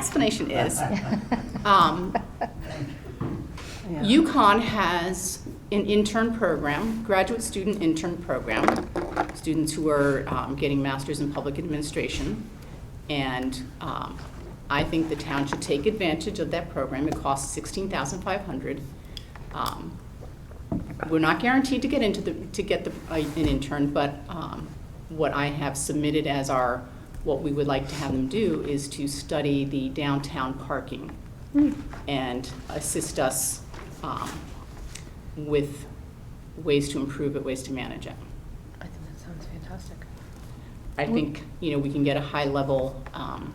explanation is, um, UConn has an intern program, graduate student intern program, students who are um, getting masters in public administration. And um, I think the town should take advantage of that program. It costs $16,500. Um, We're not guaranteed to get into the, to get the- uh, an intern, but um, what I have submitted as our, what we would like to have them do is to study the downtown parking and assist us um, with ways to improve it, ways to manage it. I think that sounds fantastic. I think, you know, we can get a high-level um,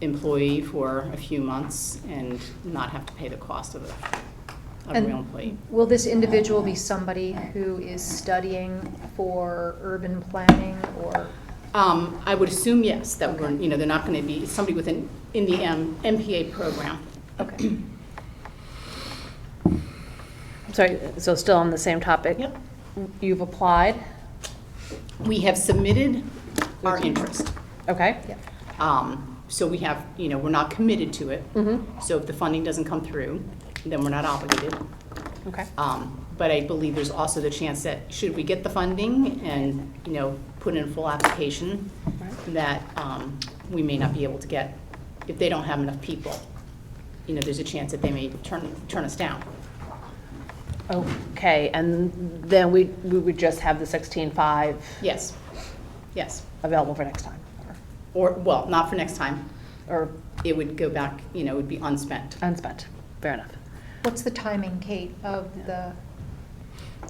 employee for a few months and not have to pay the cost of a, of a And- real employee. Will this individual be somebody who is studying for urban planning or? Um, I would assume, yes, that we're, you know, they're not going to be, somebody with an, in the M- MPA program. Okay. Sorry, so still on the same topic? Yep. You've applied, We have submitted our interest. okay? Yeah. Um, So we have, you know, we're not committed to it. Mm-hmm, So if the funding doesn't come through, then we're not obligated. okay. Um, But I believe there's also the chance that, should we get the funding and, you know, put in a full application, Right. that um, we may not be able to get, if they don't have enough people, you know, there's a chance that they may turn, turn us down. Okay, and then we, we would just have the sixteen-five Yes, yes. available for next time? or- Or, well, not for next time. Or It would go back, you know, it would be unspent. unspent, fair enough. What's the timing, Kate, of the,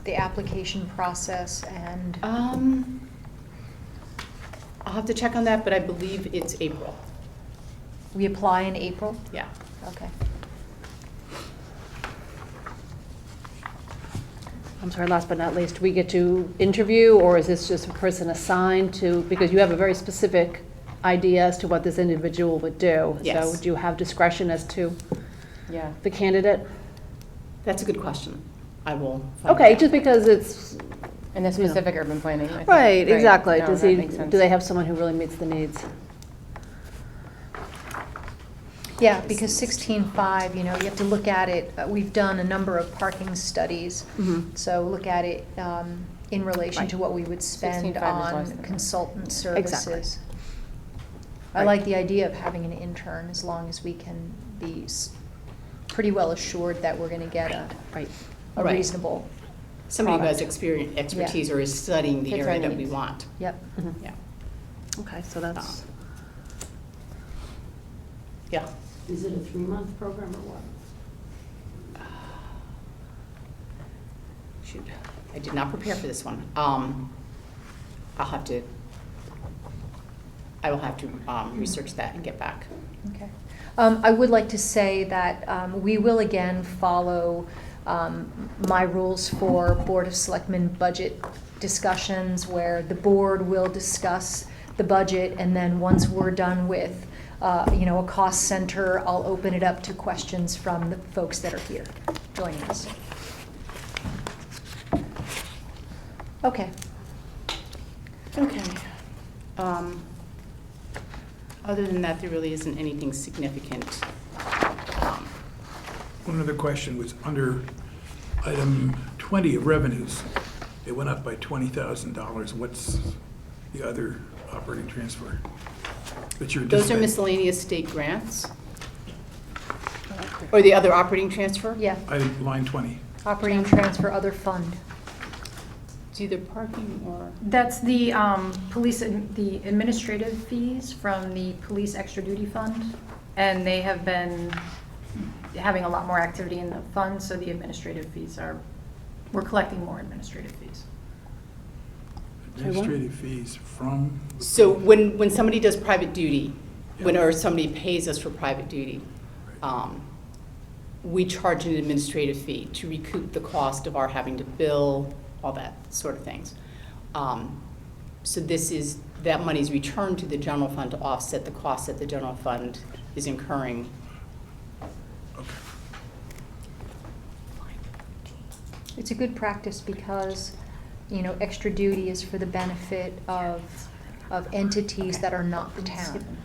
the application process and, Um, I'll have to check on that, but I believe it's April. we apply in April? Yeah. Okay. I'm sorry, last but not least, we get to interview, or is this just a person assigned to, because you have a very specific idea as to what this individual would do? Yes. So do you have discretion as to Yeah. the candidate? That's a good question. I will. find Okay, out. just because it's, And the specific urban planning. I think. Right, exactly. No, Does that he, makes sense. do they have someone who really meets the needs? Yeah, because sixteen-five, you know, you have to look at it, uh, we've done a number of parking studies, Mm-hmm. Mhm. so look at it um, in relation to what we would spend 16.5 is less on than- consultant Exactly. services. I Right. like the idea of having an intern, as long as we can be s- pretty well assured that we're gonna get a Right. a Right. reasonable, Somebody who has product. experience, expertise or is studying the Fits our area that we needs. want. yep. Mhm. Yeah. Okay, so that's, Yeah. Is it a three-month program or what? Shoot, I did not prepare for this one. Um, I'll have to, I will have to, um, research that and get back. Okay. Um, I would like to say that um, we will again follow um, my rules for Board of Selectmen budget discussions, where the board will discuss the budget, and then once we're done with, uh, you know, a cost center, I'll open it up to questions from the folks that are here joining us. Okay. Okay. Um, Other than that, there really isn't anything significant. Um, One other question was under item 20 of revenues, it went up by $20,000. What's the other operating transfer that you're Those are anticipating? miscellaneous state grants? Or the other operating transfer? Yeah, Item, line 20. operating transfer, other fund. It's either parking or, That's the um, police, ad- the administrative fees from the police extra duty fund. And they have been having a lot more activity in the fund, so the administrative fees are, we're collecting more administrative fees. Administrative fees from, so when, when somebody does private duty, when, or somebody pays us for private duty, um, we charge an administrative fee to recoup the cost of our having to bill, all that sort of things. Um, So this is, that money is returned to the general fund to offset the cost that the general fund is incurring. It's a good practice because, you know, extra duty is for the benefit of, of entities that are not the town.